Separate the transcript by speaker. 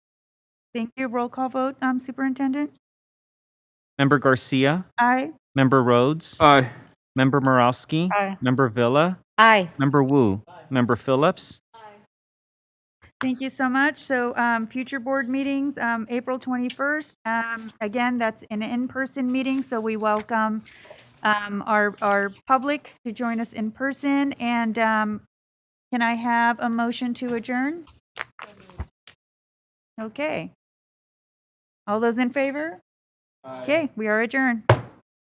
Speaker 1: Thank you. Roll call vote, um, Superintendent?
Speaker 2: Member Garcia,
Speaker 1: Aye.
Speaker 2: Member Rhodes,
Speaker 3: Aye.
Speaker 2: Member Morowski,
Speaker 4: Aye.
Speaker 2: Member Villa,
Speaker 4: Aye.
Speaker 2: Member Wu, Member Phillips,
Speaker 1: Thank you so much. So um, future board meetings, um, April 21st. Um, Again, that's an in-person meeting, so we welcome um, our, our public to join us in person. And um, can I have a motion to adjourn? Okay. All those in favor? Okay, we are adjourned.